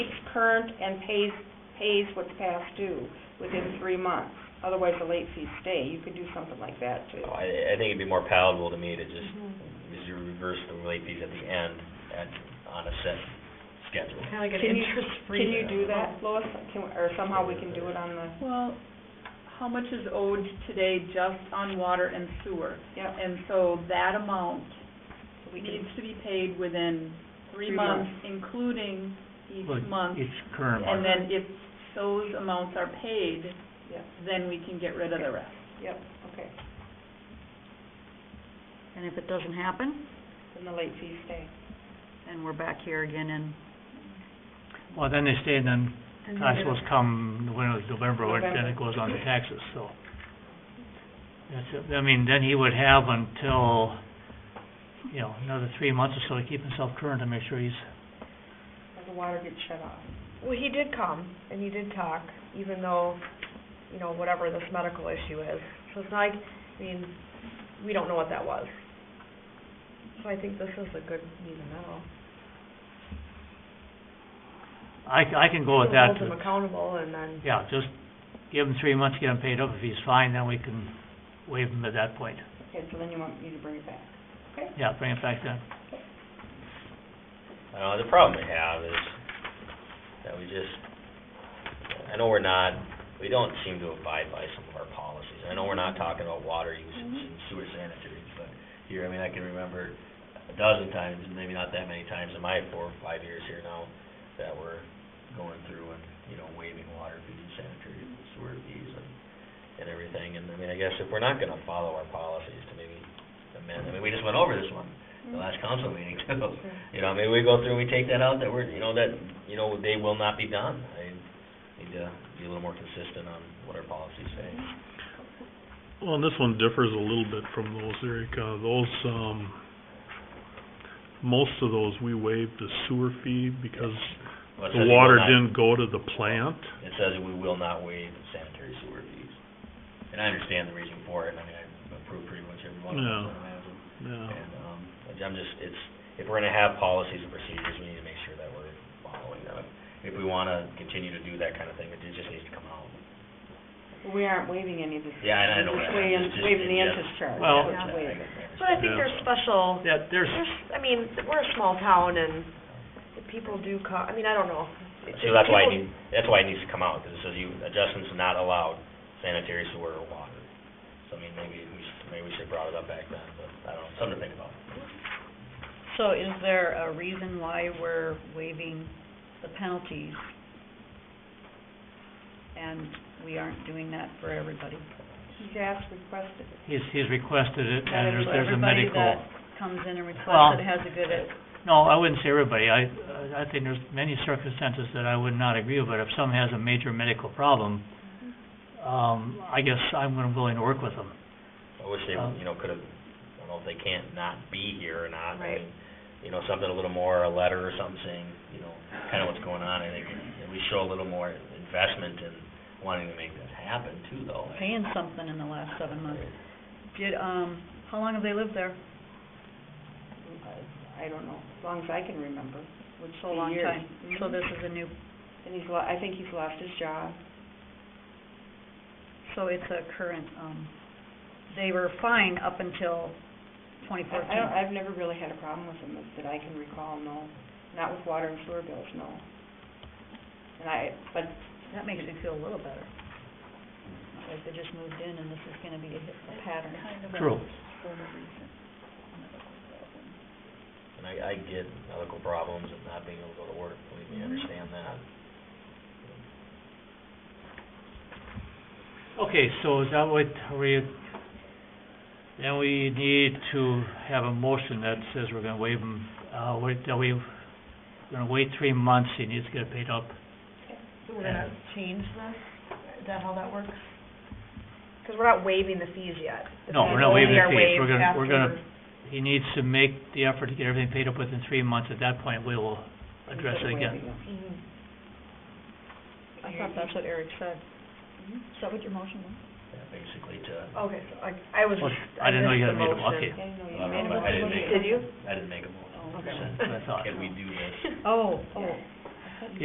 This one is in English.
current and pays, pays what's past due within three months. Otherwise, the late fees stay. You could do something like that too. So Oh, I, I think it'd be more palatable to me to just, is you reverse the late fees at the end at, on a set schedule. Kind of like an Can you- interest-free. Can you do that, Lois? Can, or somehow we can do it on the, Well, how much is owed today just on water and sewer? yeah, And so that amount so we needs can, to be paid within three Three months, including each month. Each current And one. then if those amounts are paid, Yeah. then we can get rid of the rest. yep, okay. And if it doesn't happen, Then the late fees stay. then we're back here again in, Well, then they stay, and then, I suppose come, when it was November, or then November. it goes on to taxes, so. That's it, I mean, then he would have until, you know, another three months or so to keep himself current to make sure he's, Or the water gets shut off. Well, he did come, and he did talk, even though, you know, whatever this medical issue is. So it's not like, I mean, we don't know what that was. So I think this is a good meet in the middle. I, I can go with Who that. Holds him accountable, and then, Yeah, just give him three months, get him paid up, if he's fine, then we can waive him at that point. Okay, so then you want me to bring it back. Yeah, bring it back then. Uh, the problem we have is that we just, I know we're not, we don't seem to abide by some of our policies. I know we're not talking about water usage and sewer sanitary, but here, I mean, I can remember a dozen times, maybe not that many times in my four or five years here now, that we're going through and, you know, waiving water fees and sanitary sewer fees and, and everything. And I mean, I guess if we're not gonna follow our policies to maybe amend, I mean, we just went over this one, the last council meeting too. You know, maybe we go through and we take that out, that we're, you know, that, you know, they will not be done. I need to be a little more consistent on what our policies say. Well, and this one differs a little bit from those, Erica. Those, um, most of those, we waived the sewer fee because Well, it says we the will water not- didn't go to the plant. It says we will not waive the sanitary sewer fees. And I understand the reason for it, and I mean, I approve pretty much every one of them. Yeah. so I have them. Yeah, And, um, I'm just, it's, if we're gonna have policies and procedures, we need to make sure that we're following them. If we wanna continue to do that kind of thing, it just needs to come out. But we aren't waiving any of this. Yeah, I- I know We're just that. waiving- Just- just- waiving the yeah. interest charge. Well- That's what we're waiving. but I think there's special, Yeah, there's, there's, I mean, we're a small town, and the people do co- I mean, I don't know. So that's why I People- need, that's why it needs to come out, because it says you, adjustments not allowed sanitary sewer or water. So I mean, maybe we should, maybe we should brought it up back then, but I don't know, something to think about. so is there a reason why we're waiving the penalties? And we aren't doing that for everybody? He's asked, requested it. he's, he's requested it, That and is there's, for there's a medical. Everybody that comes in and Well- requests it has a good, No, I wouldn't say everybody. I, I think there's many circumstances that I would not agree with, but if someone has a major medical problem, um, I guess I'm gonna- willing to work with them. I wish they, Um, you know, could've, I don't know if they can't not be here or not. I Right. mean, You know, something a little more, a letter or something saying, you know, kinda what's going on, I think, and we show a little more investment in wanting to make this happen too, though. paying something in the last seven months. Did, um, how long have they lived there? I I don't know, as long as I can remember, which is So a long years. time. So Mhm. this is a new, And he's, lo- I think he's lost his job. so it's a current, um, they were fine up until twenty I- I don't, fourteen. I've never really had a problem with him that- that I can recall, no. Not with water and sewer bills, no. And I, but That makes me feel a little better. Not Like they just moved in and this is gonna be a a pattern. True. And I, I get medical problems and not being able to go to work, believe me, I understand that. Okay, so is that what we, then we need to have a motion that says we're gonna waive him, uh, wait, that we, we're gonna wait three months, he needs to get paid up. So we're gonna change this? Is that how that works? Because we're not waiving the fees yet. The No, we're not fees waiving the only are fees. We're waived gonna- we're gonna- after- He needs to make the effort to get everything paid up within three months, at that point, we will address it again. Mhm. I thought that's what Eric said. Is that what your motion was? Yeah, Basically to, Okay, so I, I was. Well, just- I didn't know you had missed the made a- motion. okay. I didn't know you I don't made know, a but I didn't motion. make Did you? I didn't make a motion. Oh, Okay. That's what I thought. Can we do this? Oh, oh,